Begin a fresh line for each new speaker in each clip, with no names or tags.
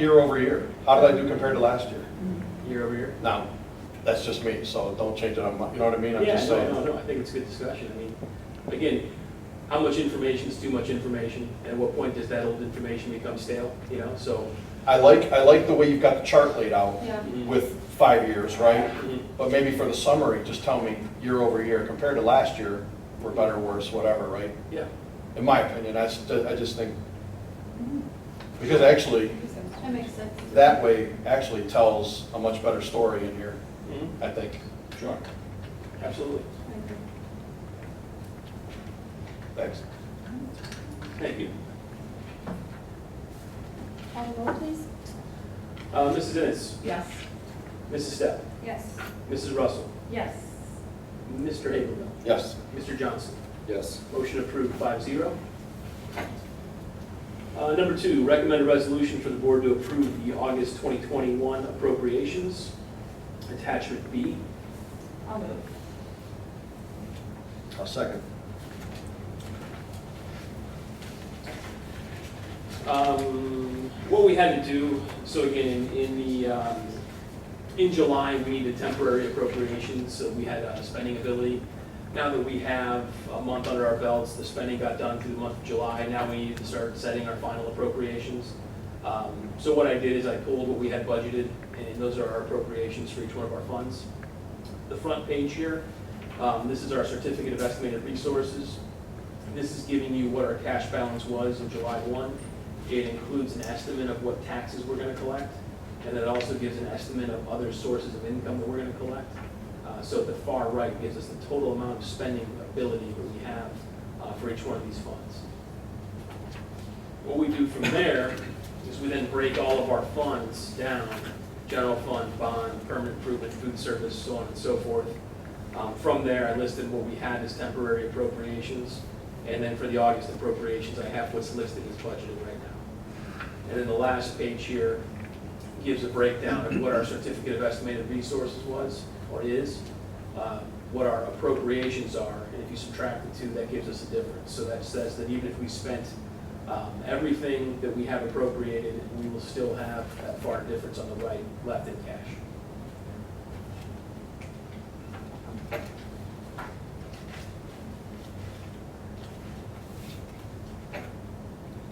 Year over year, how did I do compared to last year?
year over year.
Now, that's just me, so don't change it on my, you know what I mean? I'm
Yeah,
just
no, no,
saying.
no, I think it's a good discussion. I mean, again, how much information is too much information? At what point does that old information become stale, you know, so.
I like, I like the way you've got the chart laid out
Yeah.
with five years, right?
Mhm.
But maybe for the summary, just tell me year over year, compared to last year, we're better, worse, whatever, right?
Yeah,
In my opinion, I just, I just think, because actually,
That makes sense.
that way actually tells a much better story in here,
Mhm.
I think.
sure, absolutely.
Thanks.
Thank you.
Call the roll, please.
Uh, Mrs. Ennis,
Yes.
Mrs. Step,
Yes.
Mrs. Russell,
Yes.
Mr. Habermill,
Yes.
Mr. Johnson.
Yes.
Motion approved, five zero. Uh, Number two, recommend a resolution for the board to approve the August 2021 appropriations, attachment B.
I'll move.
I'll second.
Um, What we had to do, so again, in- in the, um, in July, we needed temporary appropriations, so we had uh, spending ability. Now that we have a month under our belts, the spending got done through the month of July, now we need to start setting our final appropriations. Um, So what I did is I pulled what we had budgeted, and those are our appropriations for each one of our funds. The front page here, um, this is our certificate of estimated resources. This is giving you what our cash balance was on July 1. It includes an estimate of what taxes we're going to collect, and it also gives an estimate of other sources of income that we're going to collect. Uh, So the far right gives us the total amount of spending ability that we have uh, for each one of these funds. What we do from there is we then break all of our funds down, general fund, bond, permanent improvement, food service, so on and so forth. Um, From there, I listed what we had as temporary appropriations, and then for the August appropriations, I have what's listed as budgeted right now. And then the last page here gives a breakdown of what our certificate of estimated resources was, or is, uh, what our appropriations are, and if you subtract the two, that gives us a difference. So that says that even if we spent um, everything that we have appropriated, we will still have that far difference on the right, left in cash.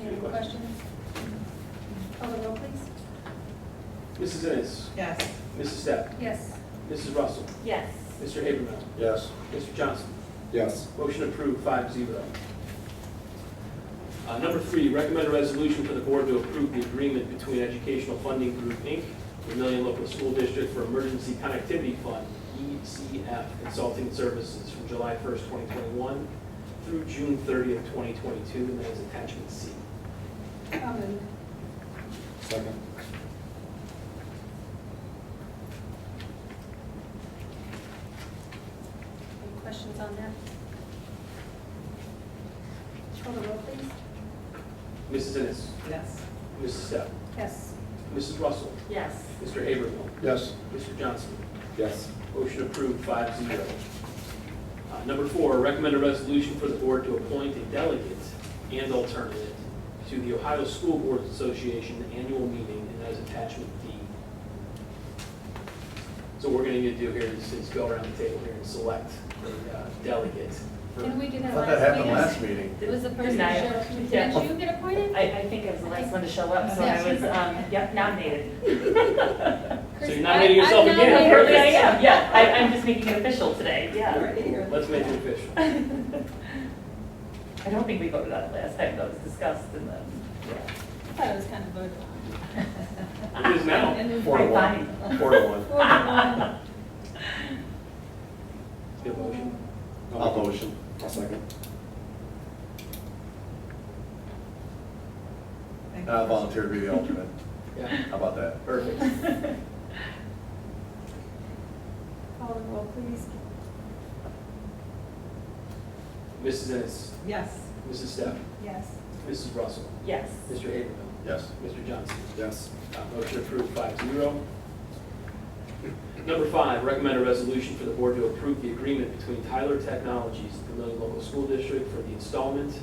Any other questions? Call the roll, please.
Mrs. Ennis,
Yes.
Mrs. Step,
Yes.
Mrs. Russell,
Yes.
Mr. Habermill,
Yes.
Mr. Johnson.
Yes.
Motion approved, five zero. Uh, Number three, recommend a resolution for the board to approve the agreement between Educational Funding Group, Inc., Vermillion Local School District for Emergency Connectivity Fund, ECF Consulting Services from July 1st, 2021 through June 30th, 2022, and that is attachment C.
I'll move.
Second.
Any questions on that? Call the roll, please.
Mrs. Ennis,
Yes.
Mrs. Step,
Yes.
Mrs. Russell,
Yes.
Mr. Habermill,
Yes.
Mr. Johnson.
Yes.
Motion approved, five zero. Uh, Number four, recommend a resolution for the board to appoint a delegate and alternate to the Ohio School Boards Association annual meeting, and that is attachment D. So what we're gonna need to do here is is go around the table here and select a uh, delegate. for-
Didn't we do
I
that
thought that happened
last
last
meeting?
meeting.
It was the person who
Denial.
showed up. Did
Yeah.
you get appointed?
I, I think I was the last one to show up, so I was, um, yep, nominated.
So you're
Chris,
nominating
I- I'm
yourself again.
nominating
Apparently I
Chris.
am, yeah, I, I'm just making it official today, yeah.
Let's make it official.
I don't think we voted on it last time, though, it was discussed and then, yeah.
I thought it was kind of voted
It is now.
on.
Four to
Fine.
one. Four to one.
Four to
Good motion.
one.
I'll motion.
I'll second.
And I Uh, volunteer to be the alternate.
Yeah,
How about that?
perfect.
Call the roll, please.
Mrs. Ennis,
Yes.
Mrs. Steph,
Yes.
Mrs. Russell,
Yes.
Mr. Habermill,
Yes.
Mr. Johnson.
Yes.
Uh, Motion approved, five zero. Number five, recommend a resolution for the board to approve the agreement between Tyler Technologies, the Vermillion Local School District, for the installment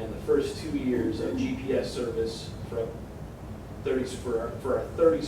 and the first two years of GPS service for, thirty, for our, for our thirty